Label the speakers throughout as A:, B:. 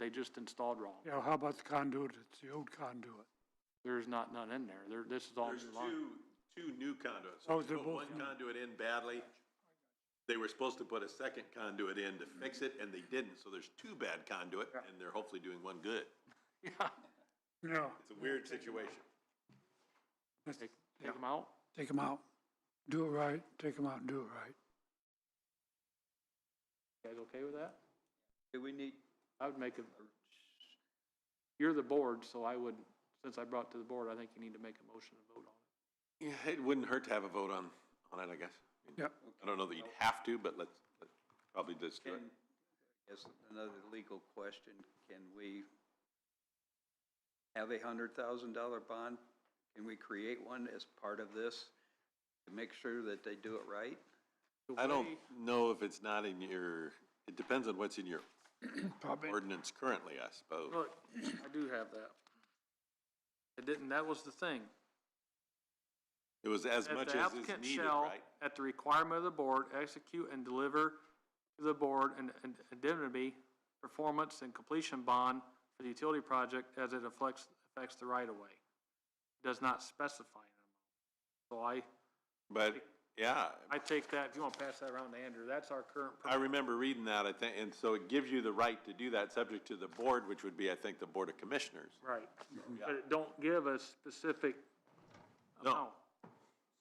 A: They just installed wrong.
B: Yeah, how about the conduit, it's the old conduit?
A: There's not none in there. There, this is all
C: There's
A: new line.
C: two, two new conduits.
B: Oh,
C: We
B: they're
C: put
B: both
C: One
B: new.
C: conduit in badly. They were supposed to put a second conduit in to fix it, and they didn't, so there's two bad conduit, and they're hopefully doing one good.
A: Yeah,
B: Yeah,
C: It's a weird situation.
A: take, take them out.
B: take them out. Do it right, take them out and do it right.
A: You guys okay with that?
D: Do we need,
A: I would make a, you're the board, so I would, since I brought it to the board, I think you need to make a motion to vote on it.
C: Yeah, it wouldn't hurt to have a vote on, on it, I guess. I mean,
B: Yep.
C: I don't know that you'd have to, but let's, let's probably just do it.
D: can, I guess another legal question, can we have a hundred thousand dollar bond? Can we create one as part of this to make sure that they do it right?
A: The
C: I don't
A: way-
C: know if it's not in your, it depends on what's in your
B: Probably.
C: ordinance currently, I suppose.
A: Look, I do have that. It didn't, that was the thing.
C: It was as
A: That
C: much
A: the
C: as is
A: applicant
C: needed,
A: shall,
C: right?
A: At the requirement of the board, execute and deliver to the board an an indemnity, performance and completion bond for the utility project as it affects, affects the right of way. Does not specify an amount. So
C: But, yeah,
A: I, I take that, if you want to pass that around to Andrew, that's our current.
C: I remember reading that, I think, and so it gives you the right to do that, subject to the board, which would be, I think, the Board of Commissioners.
A: Right, but it don't give a specific
C: No.
A: amount.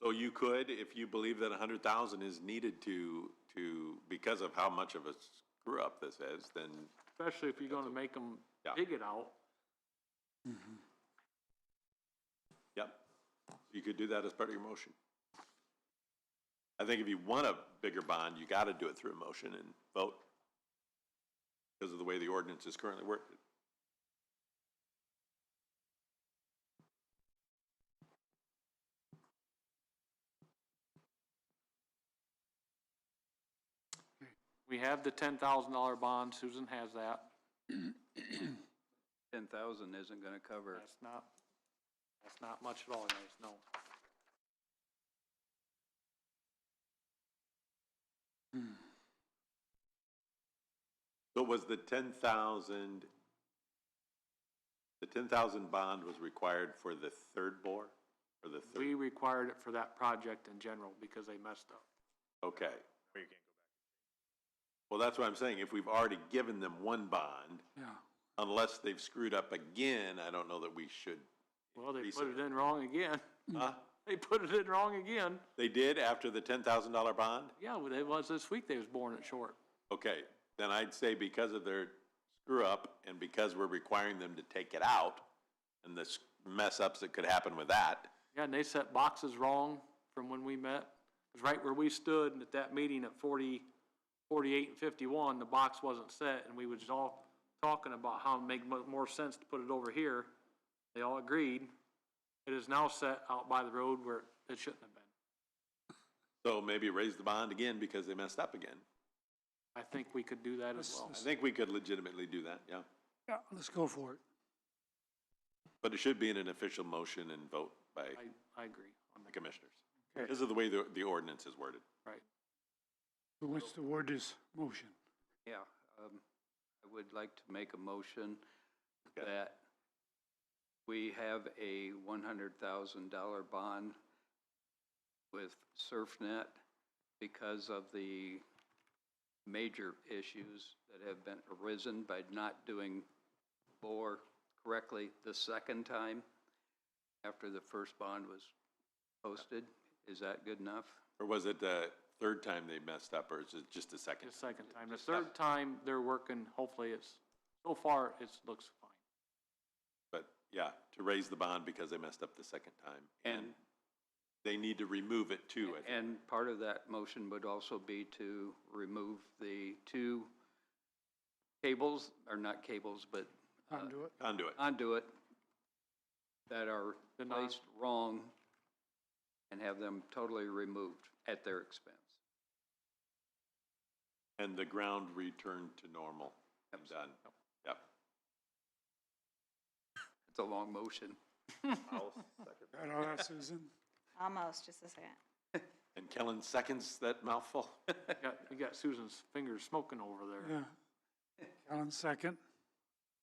C: So you could, if you believe that a hundred thousand is needed to, to, because of how much of a screw-up this is, then,
A: Especially if you're gonna make them
C: Yeah.
A: dig it out.
C: yep. You could do that as part of your motion. I think if you want a bigger bond, you gotta do it through a motion and vote. Because of the way the ordinance is currently worked.
A: We have the ten thousand dollar bond, Susan has that.
D: Ten thousand isn't gonna cover it.
A: That's not, that's not much at all, guys, no.
C: So was the ten thousand, the ten thousand bond was required for the third bore? Or the third,
A: We required it for that project in general because they messed up.
C: okay. Well, that's what I'm saying, if we've already given them one bond,
B: Yeah,
C: unless they've screwed up again, I don't know that we should.
A: Well, they
C: increase
A: put it in wrong again.
C: Huh?
A: They put it in wrong again.
C: They did after the ten thousand dollar bond?
A: Yeah, well, it was this week they was born it short.
C: Okay, then I'd say because of their screw up and because we're requiring them to take it out and the s- mess ups that could happen with that,
A: Yeah, and they set boxes wrong from when we met. It's right where we stood at that meeting at 40, 48, and fifty-one, the box wasn't set, and we was all talking about how it make mo- more sense to put it over here. They all agreed. It is now set out by the road where it shouldn't have been.
C: so maybe raise the bond again because they messed up again.
A: I think we could do that as
B: This-
A: well.
C: I think we could legitimately do that, yeah.
B: yeah, let's go for it.
C: But it should be in an official motion and vote by
A: I, I agree on
C: the
A: that,
C: commissioners.
B: Okay.
C: Because of the way the, the ordinance is worded.
A: right.
B: Who wants to word this motion?
D: Yeah, um, I would like to make a motion
C: Okay.
D: that we have a one hundred thousand dollar bond with SurfNet because of the major issues that have been arisen by not doing bore correctly the second time after the first bond was posted. Is that good enough?
C: Or was it the third time they messed up, or is it just the second?
A: The second time, the third time, they're working, hopefully it's, so far, it looks fine.
C: But, yeah, to raise the bond because they messed up the second time.
D: And-
C: They need to remove it too, I think.
D: And part of that motion would also be to remove the two cables, or not cables, but
B: Conduit?
C: Conduit.
D: conduit that are
A: The non-
D: placed wrong and have them totally removed at their expense.
C: And the ground returned to normal. I'm done. Yep.
D: It's a long motion.
B: Got all that, Susan?
E: Almost, just a second.
C: And Kellen seconds that mouthful?
A: Got, you got Susan's fingers smoking over there.
B: Yeah. Alan, second.